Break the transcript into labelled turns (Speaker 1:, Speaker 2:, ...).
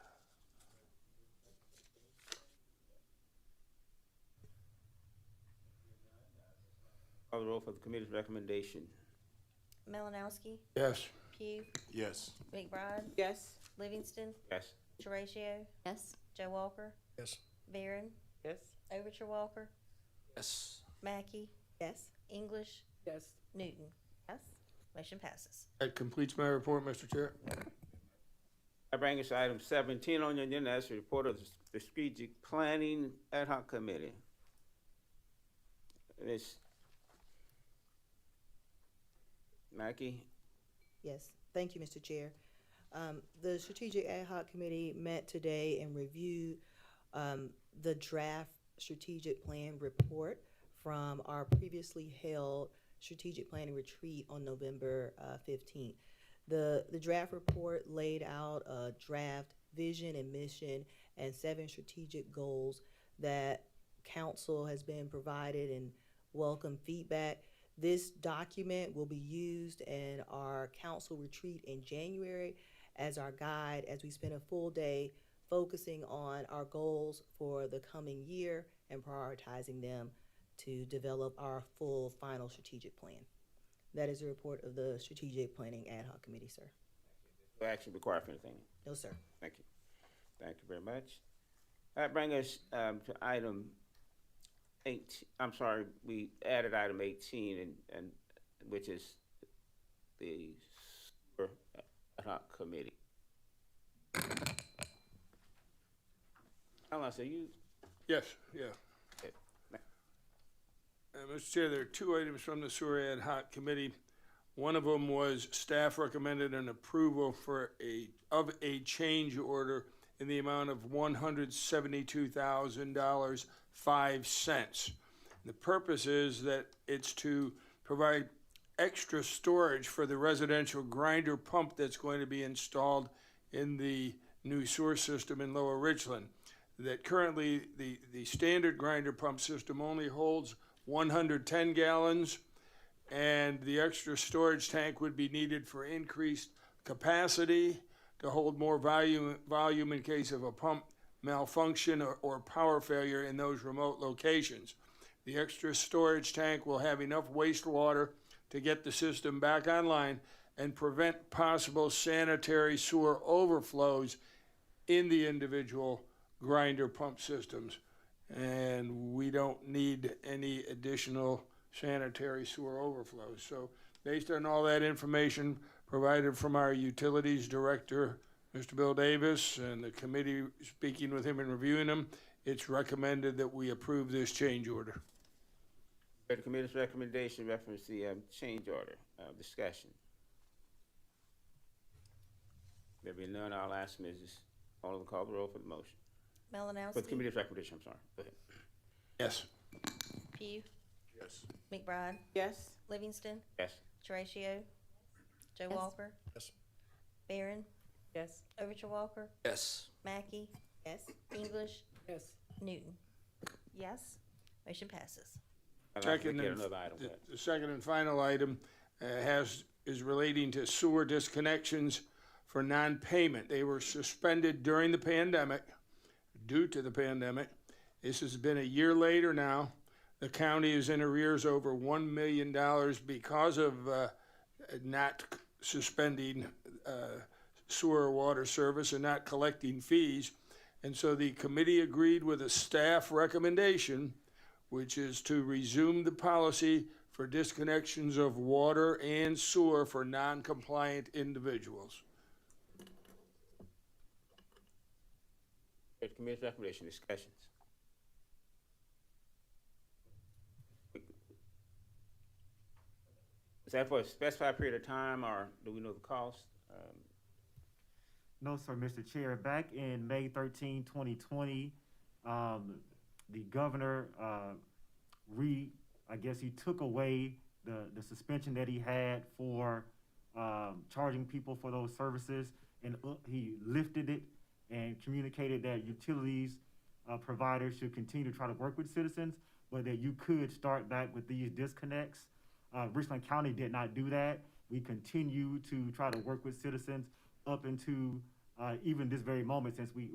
Speaker 1: Call the roll for the committee's recommendation.
Speaker 2: Melanowski,
Speaker 3: Yes.
Speaker 2: Pugh,
Speaker 4: Yes.
Speaker 2: McBride,
Speaker 5: Yes.
Speaker 2: Livingston,
Speaker 1: Yes.
Speaker 2: Horatio,
Speaker 5: Yes.
Speaker 2: Joe Walker,
Speaker 3: Yes.
Speaker 2: Barron,
Speaker 5: Yes.
Speaker 2: Overture Walker,
Speaker 3: Yes.
Speaker 2: Mackey,
Speaker 5: Yes.
Speaker 2: English,
Speaker 5: Yes.
Speaker 2: Newton.
Speaker 5: Yes.
Speaker 2: Motion passes.
Speaker 3: That completes my report, Mr. Chair.
Speaker 1: I bring us item seventeen on your agenda, that's the report of the Strategic Planning Ad hoc Committee. Ms. Mackey,
Speaker 6: Yes, thank you, Mr. Chair. Um, the Strategic Ad hoc Committee met today and reviewed, um, the draft strategic plan report from our previously held strategic planning retreat on November, uh, fifteenth. The, the draft report laid out a draft vision and mission and seven strategic goals that council has been provided and welcome feedback. This document will be used in our council retreat in January as our guide as we spend a full day focusing on our goals for the coming year and prioritizing them to develop our full final strategic plan. That is the report of the Strategic Planning Ad hoc Committee, sir.
Speaker 1: no action required for anything.
Speaker 6: No, sir.
Speaker 1: Thank you. Thank you very much. That brings us um, to item eight, I'm sorry, we added item eighteen and, and, which is the sewer ad hoc committee. Alan, so you,
Speaker 3: Yes, yeah.
Speaker 1: Yeah.
Speaker 3: Uh, Mr. Chair, there are two items from the sewer ad hoc committee. One of them was staff recommended an approval for a, of a change order in the amount of one hundred seventy-two thousand dollars, five cents. The purpose is that it's to provide extra storage for the residential grinder pump that's going to be installed in the new sewer system in Lower Richland that currently the, the standard grinder pump system only holds 110 gallons, and the extra storage tank would be needed for increased capacity to hold more volume, volume in case of a pump malfunction or, or power failure in those remote locations. The extra storage tank will have enough wastewater to get the system back online and prevent possible sanitary sewer overflows in the individual grinder pump systems. And we don't need any additional sanitary sewer overflows. So based on all that information provided from our utilities director, Mr. Bill Davis, and the committee speaking with him and reviewing them, it's recommended that we approve this change order.
Speaker 1: the committee's recommendation reference the um, change order, uh, discussion. There being none, I'll ask Mrs. Alderman call the roll for the motion, for the
Speaker 2: Melanowski,
Speaker 1: committee's recommendation, I'm sorry, go ahead.
Speaker 3: Yes.
Speaker 2: Pugh,
Speaker 4: Yes.
Speaker 2: McBride,
Speaker 5: Yes.
Speaker 2: Livingston,
Speaker 1: Yes.
Speaker 2: Horatio, Joe
Speaker 5: Yes.
Speaker 2: Walker.
Speaker 3: Yes.
Speaker 2: Barron,
Speaker 5: Yes.
Speaker 2: Overture Walker,
Speaker 3: Yes.
Speaker 2: Mackey,
Speaker 6: Yes?
Speaker 2: English,
Speaker 5: Yes.
Speaker 2: Newton.
Speaker 5: Yes.
Speaker 2: Motion passes.
Speaker 1: I'll ask
Speaker 3: Second
Speaker 1: Mr.
Speaker 3: and,
Speaker 1: Another item,
Speaker 3: the-
Speaker 1: but-
Speaker 3: the second and final item uh, has, is relating to sewer disconnections for non-payment. They were suspended during the pandemic, due to the pandemic. This has been a year later now. The county is in arrears over one million dollars because of uh, not suspending uh, sewer water service and not collecting fees. And so the committee agreed with a staff recommendation which is to resume the policy for disconnections of water and sewer for non-compliant individuals.
Speaker 1: The committee's recommendation, discussions. Is that for a specified period of time, or do we know the cost? Um,
Speaker 7: No, sir, Mr. Chair. Back in May 13, 2020, um, the governor uh, re, I guess he took away the, the suspension that he had for um, charging people for those services, and uh, he lifted it and communicated that utilities uh, providers should continue to try to work with citizens, but that you could start back with these disconnects. Uh, Richland County did not do that. We continue to try to work with citizens up into uh, even this very moment since we